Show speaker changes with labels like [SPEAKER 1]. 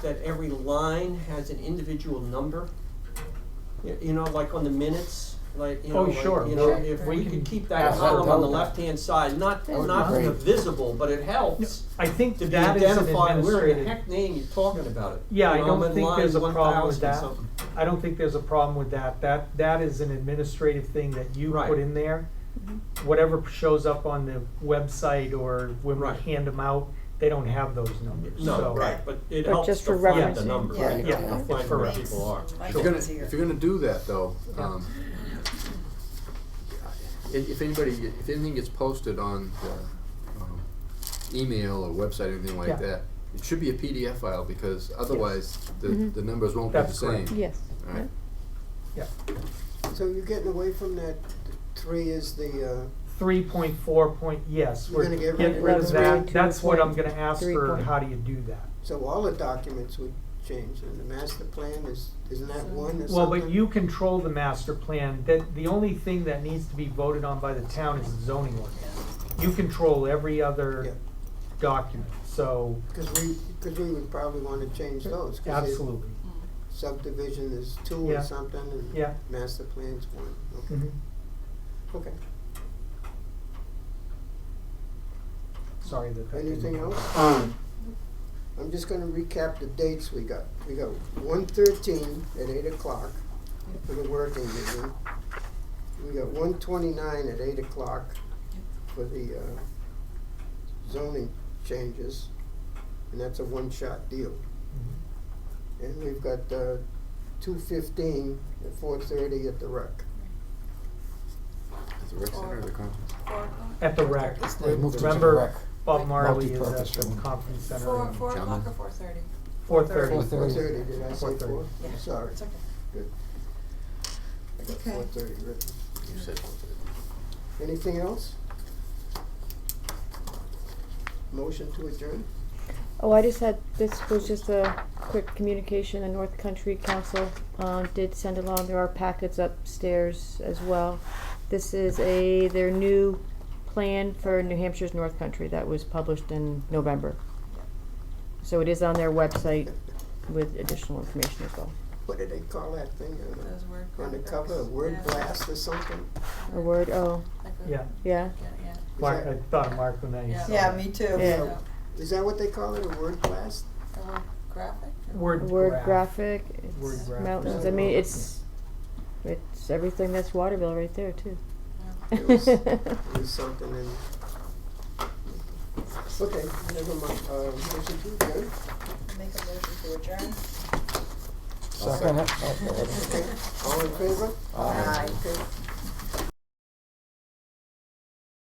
[SPEAKER 1] that every line has an individual number? Y- You know, like on the minutes, like, you know,
[SPEAKER 2] Oh,
[SPEAKER 1] like,
[SPEAKER 2] sure.
[SPEAKER 1] you know,
[SPEAKER 3] Sure.
[SPEAKER 1] if
[SPEAKER 2] We
[SPEAKER 1] we
[SPEAKER 2] can
[SPEAKER 1] could keep that
[SPEAKER 2] ask her to
[SPEAKER 1] column on the
[SPEAKER 2] tell that.
[SPEAKER 1] left-hand side, not,
[SPEAKER 3] That would
[SPEAKER 1] not
[SPEAKER 3] be
[SPEAKER 1] the
[SPEAKER 3] great.
[SPEAKER 1] visible, but it helps
[SPEAKER 2] I think
[SPEAKER 1] to be
[SPEAKER 2] that is an
[SPEAKER 1] identified, where in the
[SPEAKER 2] administrative.
[SPEAKER 1] heck name you're talking about it?
[SPEAKER 2] Yeah, I
[SPEAKER 1] You know, I'm
[SPEAKER 2] don't
[SPEAKER 1] in
[SPEAKER 2] think there's a
[SPEAKER 1] line
[SPEAKER 2] problem with
[SPEAKER 1] 1000
[SPEAKER 2] that.
[SPEAKER 1] something.
[SPEAKER 2] I don't think there's a problem with that. That, that is an administrative thing that you
[SPEAKER 1] Right.
[SPEAKER 2] put in there. Whatever shows up on the website or when we
[SPEAKER 1] Right.
[SPEAKER 2] hand them out, they don't have those numbers,
[SPEAKER 1] No,
[SPEAKER 2] so.
[SPEAKER 1] right, but it
[SPEAKER 4] But
[SPEAKER 1] helps
[SPEAKER 4] just
[SPEAKER 1] to
[SPEAKER 4] for
[SPEAKER 1] find the
[SPEAKER 4] referencing,
[SPEAKER 1] number,
[SPEAKER 4] yeah.
[SPEAKER 1] right,
[SPEAKER 2] Yeah,
[SPEAKER 1] to
[SPEAKER 2] it's
[SPEAKER 1] find
[SPEAKER 2] for
[SPEAKER 1] where
[SPEAKER 2] reference.
[SPEAKER 1] people are.
[SPEAKER 3] Like
[SPEAKER 1] Sure.
[SPEAKER 5] If you're
[SPEAKER 3] it's
[SPEAKER 5] gonna,
[SPEAKER 3] here.
[SPEAKER 5] if you're gonna do that though,
[SPEAKER 2] Yeah.
[SPEAKER 5] um, i- if anybody, if anything gets posted on the, um, email or website, anything
[SPEAKER 2] Yeah.
[SPEAKER 5] like that, it should be a PDF file because otherwise the, the numbers won't be the
[SPEAKER 2] Mm-hmm. That's
[SPEAKER 5] same.
[SPEAKER 2] correct.
[SPEAKER 4] Yes.
[SPEAKER 5] Alright,
[SPEAKER 6] So you're getting away from that three is the, uh,
[SPEAKER 2] Three point four point, yes,
[SPEAKER 6] You're
[SPEAKER 2] we're
[SPEAKER 6] gonna get
[SPEAKER 2] getting
[SPEAKER 6] rid
[SPEAKER 2] rid
[SPEAKER 6] of
[SPEAKER 2] of
[SPEAKER 6] three
[SPEAKER 2] that.
[SPEAKER 4] to
[SPEAKER 2] That's what I'm
[SPEAKER 4] point
[SPEAKER 2] gonna ask
[SPEAKER 4] three
[SPEAKER 2] her,
[SPEAKER 4] point-
[SPEAKER 2] how do you do that?
[SPEAKER 6] uh, so all the documents would change, and the master plan is, isn't that one or something?
[SPEAKER 2] Well, but you control the master plan, that, the only thing that needs to be voted on by the town is the zoning ordinance. You control every
[SPEAKER 6] Yeah.
[SPEAKER 2] other document, so,
[SPEAKER 6] Cause we, cause we would probably wanna change those, cause the
[SPEAKER 2] absolutely,
[SPEAKER 6] subdivision is two
[SPEAKER 2] Yeah.
[SPEAKER 6] or something, and
[SPEAKER 2] yeah.
[SPEAKER 6] master plan's one, okay,
[SPEAKER 2] Mhm.
[SPEAKER 6] okay.
[SPEAKER 2] Sorry that that didn't.
[SPEAKER 6] Anything else?
[SPEAKER 7] Um,
[SPEAKER 6] I'm just gonna recap the dates we got. We got one thirteen at eight o'clock for the working meeting. We got one twenty-nine at eight o'clock for the uh, zoning changes, and that's a one-shot deal.
[SPEAKER 2] Mhm.
[SPEAKER 6] And we've got uh, two fifteen at four thirty at the rec.
[SPEAKER 5] Is the rec center or the conference?
[SPEAKER 2] At the rec,
[SPEAKER 7] they moved it to the
[SPEAKER 2] Remember-
[SPEAKER 7] rec.
[SPEAKER 2] Bob Marley is at
[SPEAKER 7] Multi-purpose
[SPEAKER 2] the
[SPEAKER 7] room.
[SPEAKER 2] conference center,
[SPEAKER 3] Four, four o'clock or four thirty?
[SPEAKER 2] four thirty.
[SPEAKER 7] Four
[SPEAKER 6] Four
[SPEAKER 7] thirty.
[SPEAKER 6] thirty, did I say
[SPEAKER 2] 4:30.
[SPEAKER 6] four?
[SPEAKER 3] Yeah.
[SPEAKER 6] Sorry,
[SPEAKER 3] It's okay.
[SPEAKER 6] I got
[SPEAKER 3] Okay.
[SPEAKER 6] four thirty written.
[SPEAKER 5] You said one thirty.
[SPEAKER 6] Anything else? Motion to adjourn?
[SPEAKER 4] Oh, I just had, this was just a quick communication, the North Country Council, um, did send along, there are packets upstairs as well. This is a, their new plan for New Hampshire's North Country that was published in November. So it is on their website with additional information as well,
[SPEAKER 6] What do they call that thing? Uh,
[SPEAKER 3] Those word.
[SPEAKER 6] On the
[SPEAKER 3] graphics.
[SPEAKER 6] cover, a word
[SPEAKER 3] Yeah.
[SPEAKER 6] blast or something?
[SPEAKER 4] a word, oh,
[SPEAKER 3] Like a-
[SPEAKER 2] Yeah,
[SPEAKER 4] yeah,
[SPEAKER 3] Yeah, yeah.
[SPEAKER 2] Mark, I thought of Mark when I
[SPEAKER 3] Yeah.
[SPEAKER 2] saw
[SPEAKER 3] Yeah,
[SPEAKER 2] that.
[SPEAKER 3] me too.
[SPEAKER 4] Yeah.
[SPEAKER 3] So,
[SPEAKER 6] Is that what they call it, a word blast?
[SPEAKER 3] a word graphic? or-
[SPEAKER 4] a
[SPEAKER 2] Word
[SPEAKER 4] word
[SPEAKER 2] graph.
[SPEAKER 4] graphic,
[SPEAKER 2] Word
[SPEAKER 4] it's
[SPEAKER 2] graphic.
[SPEAKER 4] mountains, I mean, it's, it's everything that's Waterville right there too.
[SPEAKER 3] Yeah.
[SPEAKER 6] It was- It was something in. Okay, never mind, uh, motion to adjourn?
[SPEAKER 3] Make a motion to adjourn.
[SPEAKER 7] Second, it. Oh, there it is.
[SPEAKER 6] All in favor?
[SPEAKER 7] Aye.
[SPEAKER 6] Okay.